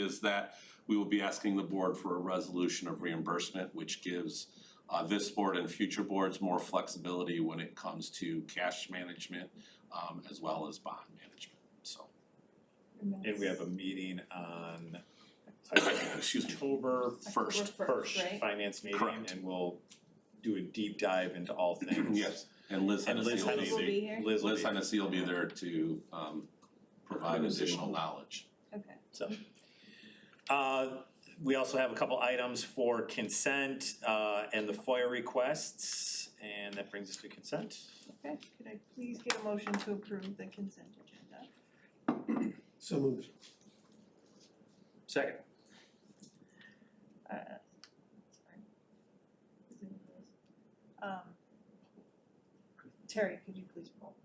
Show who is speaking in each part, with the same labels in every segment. Speaker 1: is that we will be asking the board for a resolution of reimbursement, which gives uh this board and future boards more flexibility when it comes to cash management um as well as bond management, so.
Speaker 2: And we have a meeting on excuse me, October
Speaker 1: First,
Speaker 2: first, finance meeting,
Speaker 1: Correct.
Speaker 2: and we'll do a deep dive into all things.
Speaker 1: yes, and Liz
Speaker 2: And
Speaker 1: Hennessy
Speaker 2: Liz
Speaker 1: will
Speaker 2: Hennessy,
Speaker 1: be,
Speaker 3: Will be here?
Speaker 2: Liz will
Speaker 1: Liz
Speaker 2: be-
Speaker 1: Hennessy will be there to um provide additional knowledge.
Speaker 3: Okay.
Speaker 2: So. Uh, we also have a couple items for consent, uh, and the FOIA requests, and that brings us to consent.
Speaker 3: Okay, could I please get a motion to approve the consent agenda?
Speaker 4: So moved.
Speaker 2: Second.
Speaker 3: Uh, sorry. Is it yours? Um, Terry, could you please roll?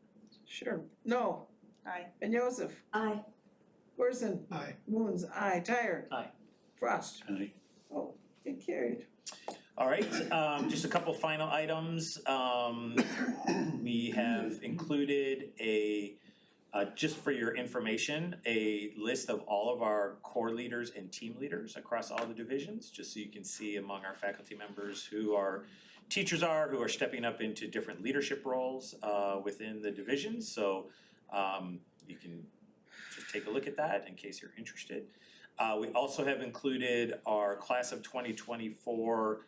Speaker 5: Sure, no,
Speaker 3: Aye.
Speaker 5: Ben Joseph,
Speaker 6: Aye.
Speaker 5: Corson,
Speaker 4: Aye.
Speaker 5: Moons, aye, Tired.
Speaker 2: Aye.
Speaker 5: Frost,
Speaker 1: Aye.
Speaker 5: oh, get carried.
Speaker 2: All right, um, just a couple final items. Um, we have included a, uh, just for your information, a list of all of our core leaders and team leaders across all the divisions, just so you can see among our faculty members who our teachers are, who are stepping up into different leadership roles, uh, within the divisions. So, um, you can just take a look at that in case you're interested. Uh, we also have included our class of twenty twenty-four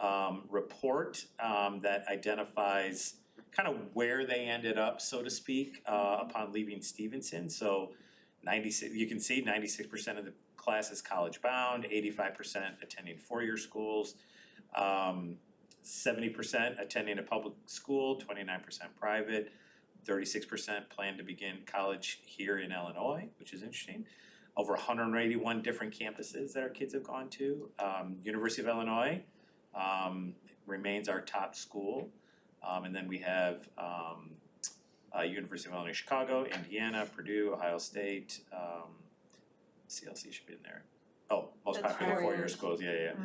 Speaker 2: um report um that identifies kind of where they ended up, so to speak, uh upon leaving Stevenson, so ninety-six, you can see ninety-six percent of the class is college bound, eighty-five percent attending four-year schools, um seventy percent attending a public school, twenty-nine percent private, thirty-six percent plan to begin college here in Illinois, which is interesting over hundred and eighty-one different campuses that our kids have gone to. Um, University of Illinois um, remains our top school. Um, and then we have um, uh, University of Illinois Chicago, Indiana, Purdue, Ohio State. Um, CLC should be in there. Oh, most
Speaker 3: That's
Speaker 2: popular
Speaker 3: four
Speaker 2: four-year
Speaker 3: years.
Speaker 2: schools. Yeah, yeah. yeah.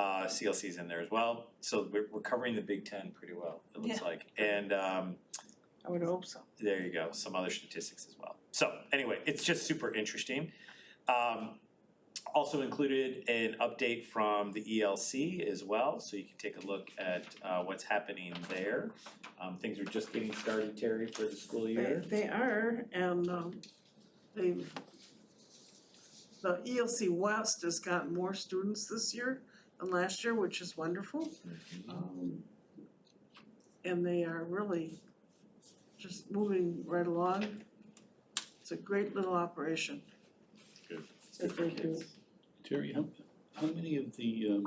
Speaker 2: Uh, CLC's in there as well. So we're, we're covering the Big Ten pretty well. It looks
Speaker 3: Yeah.
Speaker 2: like, and um,
Speaker 5: I would hope so.
Speaker 2: there you go, some other statistics as well. So anyway, it's just super interesting. Um, also included an update from the ELC as well, so you can take a look at uh what's happening there. Um, things are just getting started, Terry, for the school
Speaker 5: They,
Speaker 2: year.
Speaker 5: they are, and, um, they've, the ELC West has gotten more students this year than last year, which is wonderful.
Speaker 1: Mm-hmm.
Speaker 5: Um, And they are really just moving right along. It's a great little operation.
Speaker 1: Good.
Speaker 5: That they do.
Speaker 7: Terry, how, how many of the, um,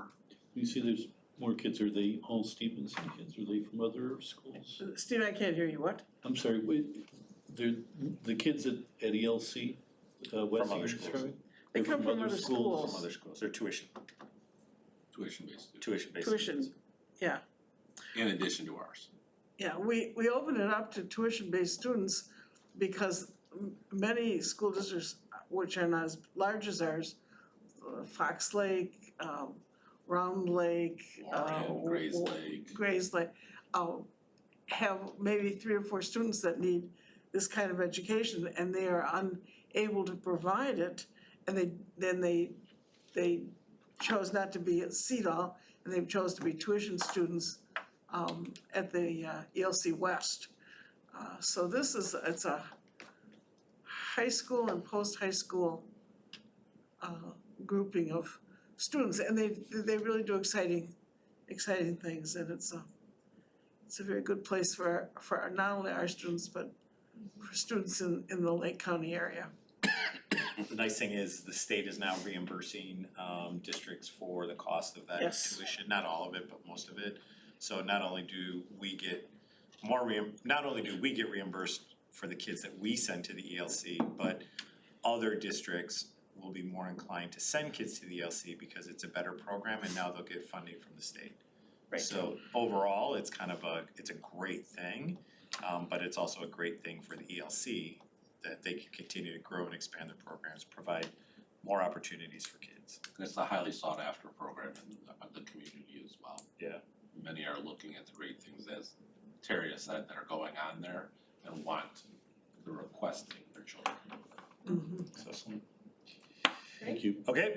Speaker 7: you say there's more kids, are they all Stevenson kids, are they from other schools?
Speaker 5: Steve, I can't hear you, what?
Speaker 7: I'm sorry, wait, they're, the kids at, at ELC, uh, West
Speaker 2: other
Speaker 7: Stevenson,
Speaker 2: schools.
Speaker 7: sorry?
Speaker 5: They
Speaker 7: They're
Speaker 5: come from other
Speaker 2: From
Speaker 5: schools.
Speaker 2: other schools, they're tuition,
Speaker 1: Tuition based,
Speaker 2: tuition based.
Speaker 5: Tuition.
Speaker 1: in addition to ours.
Speaker 5: Yeah, we, we open it up to tuition-based students because m- many school districts, which are not as large as ours, uh, Fox Lake, um, Round Lake, uh,
Speaker 1: Warren, Gray's Lake.
Speaker 5: Grays Lake, uh, have maybe three or four students that need this kind of education and they are unable to provide it. And they, then they, they chose not to be at CEDAL and they chose to be tuition students um at the uh ELC West. Uh so this is, it's a high school and post-high school uh grouping of students and they they really do exciting, exciting things and it's a it's a very good place for our- for our- not only our students, but for students in in the Lake County area.
Speaker 2: The nice thing is the state is now reimbursing um districts for the cost of that
Speaker 5: Yes.
Speaker 2: tuition, not all of it, but most of it. So not only do we get more reim- not only do we get reimbursed for the kids that we send to the ELC, but other districts will be more inclined to send kids to the ELC because it's a better program and now they'll get funding from the state.
Speaker 5: Right.
Speaker 2: So overall, it's kind of a, it's a great thing, um but it's also a great thing for the E ELC that they can continue to grow and expand their programs, provide more opportunities for kids.
Speaker 1: And it's a highly sought after program in the, the community as well.
Speaker 2: Yeah.
Speaker 1: Many are looking at the great things as Terry has said that are going on there and want, they're requesting their children.
Speaker 5: Mhm.
Speaker 2: So
Speaker 8: Thank you.
Speaker 1: Okay,